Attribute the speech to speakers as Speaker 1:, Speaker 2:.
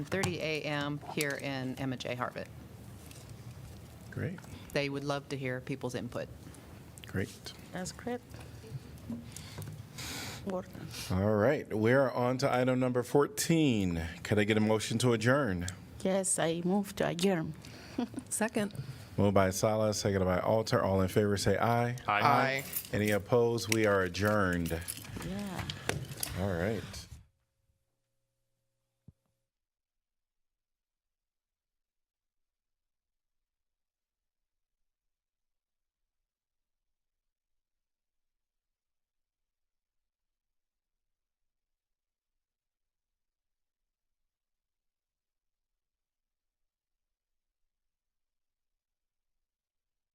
Speaker 1: 30 a.m. here in Emma J. Harvett.
Speaker 2: Great,
Speaker 1: They would love to hear people's input.
Speaker 2: great.
Speaker 3: That's great. What?
Speaker 2: All right, we're on to item number 14. Could I get a motion to adjourn?
Speaker 3: Yes, I move to adjourn.
Speaker 1: Second.
Speaker 2: Moved by Salas, seconded by Alter. All in favor, say aye.
Speaker 4: Aye. Aye.
Speaker 2: Any opposed? We are adjourned.
Speaker 3: Yeah.
Speaker 2: All right.